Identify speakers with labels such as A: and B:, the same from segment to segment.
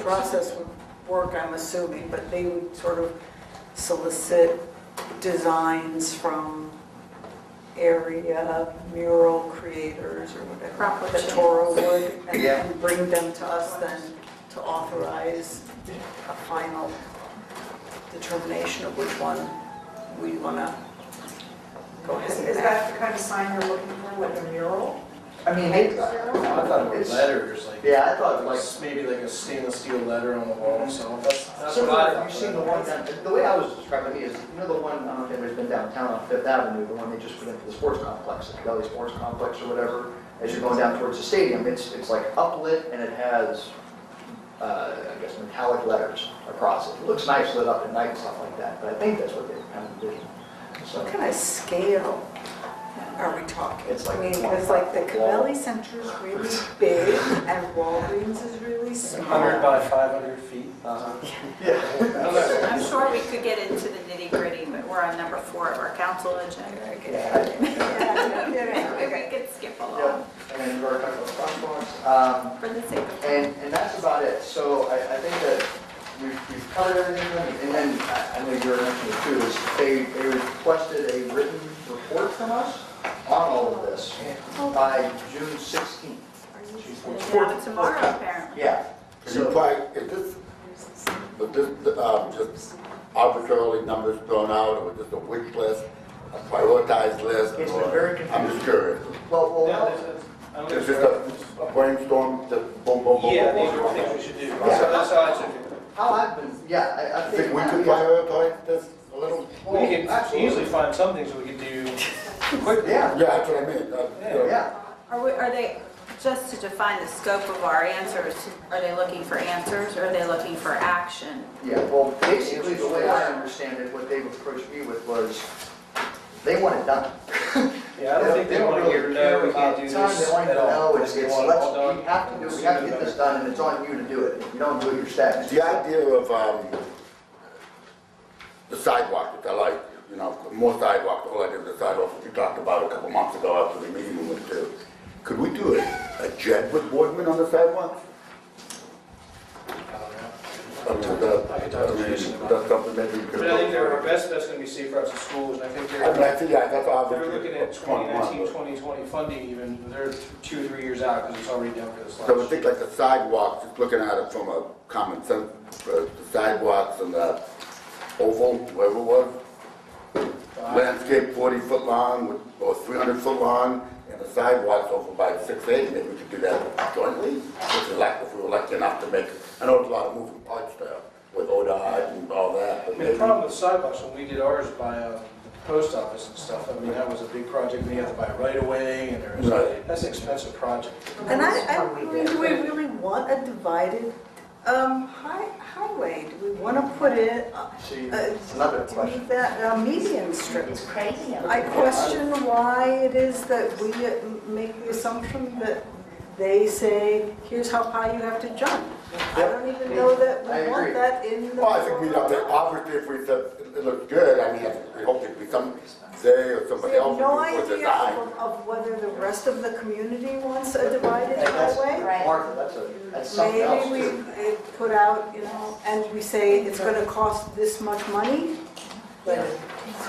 A: process would work, I'm assuming, but they would sort of solicit designs from area mural creators or whatever.
B: Crop
A: The
B: rotation.
A: Toro would, and-
C: Yeah.
A: and bring them to us then to authorize a final determination of which one we want to go
D: Is
A: ahead
D: is
A: and act.
D: that the kind of sign you're looking for, like a mural?
C: I mean,
D: Paper
C: it's-
D: mural?
E: I thought it was
C: It's-
E: letters, like.
C: yeah, I thought like, Mm-hmm.
E: Like maybe like a stainless steel letter on the wall, so that's, that's what I
C: similar,
E: thought.
C: have you seen the one down, the way I was describing it is, you know the one, I don't know if anybody's been downtown on Fifth Avenue, the one they just put into the sports complex, the Valley Sports Complex or whatever, as you're going down towards the stadium, it's, it's like uplit and it has, uh, I guess metallic letters across it. It looks nice lit up at night and stuff like that, but I think that's what they kind of envisioned. So,
A: What kind of scale are we talking?
C: It's like
A: I mean, because like the
C: wall.
A: Cavelli Center is really big and Walgreens is really small.
E: Hundred by five hundred feet.
C: uh-huh. Yeah.
B: I'm sure we could get into the nitty gritty, but we're on number four of our council agenda.
C: Yeah.
A: Yeah, yeah.
B: Maybe we could skip
C: Yeah,
B: along
C: and then we're talking about crosswalks. Um,
B: for the sake of.
C: And, and that's about it. So I, I think that we've, we've covered everything. And then I I know you were mentioning it too, is they, they requested a written report from us on all of this by June 16th.
B: We're gonna have it Tomorrow, apparently.
C: Yeah.
F: You
C: So,
F: probably, is this, was this, um, just arbitrarily numbers thrown out, or just a wish list, a prioritized list?
C: It's been
F: or-
C: very
F: I'm
C: confusing.
F: just curious.
C: well,
E: Yeah,
C: well,
E: there's a- I'm
F: It's
E: just-
F: just a brainstorm, just boom, boom, boom, boom, boom.
E: Yeah, these are
F: boom.
E: things we should do. So that's how I took it.
C: how I've been, yeah, I, I
F: You think
C: think.
F: we could prioritize this a little?
C: Well,
E: We could
C: absolutely.
E: easily find some things we could do quickly.
C: Yeah,
F: Yeah, that's what I mean. uh,
E: Yeah.
C: yeah.
B: Are we, are they, just to define the scope of our answers, are they looking for answers or are they looking for action?
C: Yeah, well, basically, the way I understand it, what they've approached me with was, they want it done.
E: Yeah, I don't think they want to hear, no, we can't do this
C: They want to
E: at all.
C: know, it's,
E: They
C: it's,
E: want it all
C: let's,
E: done.
C: we have to do, we have to get this done, and it's on you to do it. If you don't do it, you're stacked.
F: The idea of, um, the sidewalk, which I like, you know, more sidewalk, the whole idea of the sidewalk, which we talked about a couple months ago after the meeting we went to. Could we do a, a jet with Boardman on the sidewalk? I mean, is that,
E: I could talk to
F: I mean, is
E: Jason about
F: that something that we
E: But
F: could.
E: I think they're, our best bet's gonna be safe routes to schools, and I think
F: I mean,
E: they're,
F: I think, yeah, that's
E: they're
F: obviously.
E: looking at 2019, 2020 funding even, they're two or three years out, because it's already down for this last.
F: So I think like the sidewalks, just looking at it from a common sense, uh, the sidewalks and the oval, wherever it was,
E: Uh,
F: landscape forty foot long with- or three hundred foot long, and the sidewalks over by six eight, maybe we could do that jointly, if we like, if we were lucky enough to make, I know there's a lot of moving parts there with ODOT and all
E: I
F: that, but
E: mean, the
F: maybe.
E: problem with sidewalks, when we did ours by uh, the post office and stuff, I mean, that was a big project, and you had to buy a right away, and there was,
F: Right.
E: that's an expensive project.
A: And I, I, do we really want a divided, um, hi, highway? Do we want to put it, uh,
C: See,
A: uh,
C: it's another
A: do we
C: question.
A: need that uh, median strip?
G: It's crazy.
A: I question why it is that we make the assumption that they say, here's how high you have to jump. I don't even know that
C: I
A: we
C: agree.
A: want that in the.
F: Well, I think we, have to- obviously, if we said it looked good, I mean, we hope it'd be some, they or
A: We
F: somebody
A: have
F: else
A: no
F: would do it for
A: idea
F: design.
A: of of whether the rest of the community wants a divided
C: And that's-
A: highway.
G: Right.
C: Martha, that's a, that's something else
A: Maybe we
C: too.
A: uh, put out, you know, and we say it's gonna cost this much money.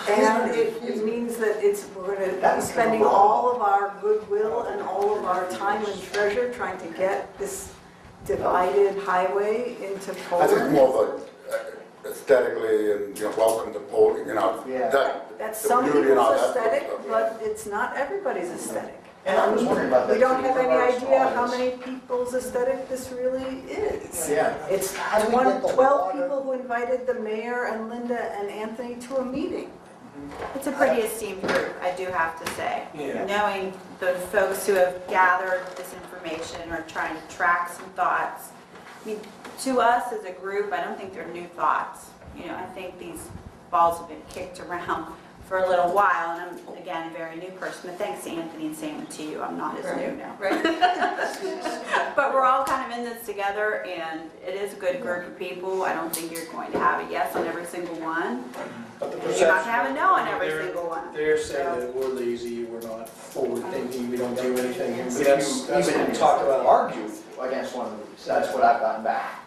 A: And it it means that it's, we're gonna be spending all of our goodwill and all of our time and treasure trying to get this divided highway into
F: I think
A: Poland.
F: more of a uh, aesthetically and, you know, welcome to Poland, you know,
C: Yeah.
F: that.
A: That's
F: the
A: some
F: beauty and all
A: people's
F: that sort of
A: aesthetic,
F: stuff.
A: but it's not everybody's aesthetic.
C: And I was wondering about that.
A: We don't
C: too,
A: have
C: from
A: any
C: our
A: idea how
C: response.
A: many people's aesthetic this really is.
C: Yeah.
A: It's
C: How do we
A: one-
C: get the
A: 12
C: water?
A: people who invited the mayor and Linda and Anthony to a meeting.
B: It's a pretty esteemed group, I do have to say.
E: Yeah.
B: Knowing the folks who have gathered this information or trying to track some thoughts. I mean, to us as a group, I don't think they're new thoughts. You know, I think these balls have been kicked around for a little while, and I'm, again, a very new person, but thanks to Anthony and Sam and to you, I'm not as new now. But we're all kind of in this together, and it is a good group of people. I don't think you're going to have a yes on every single one.
E: But the
B: You're not gonna have a
E: perception-
B: no on every
E: they're-
B: single one.
E: They're saying that we're lazy, we're not forward-thinking, we don't do anything,
C: If
E: but
C: you
E: that's, that's what
C: even
E: we talked about.
C: Argue against one of these, that's what I've gotten back.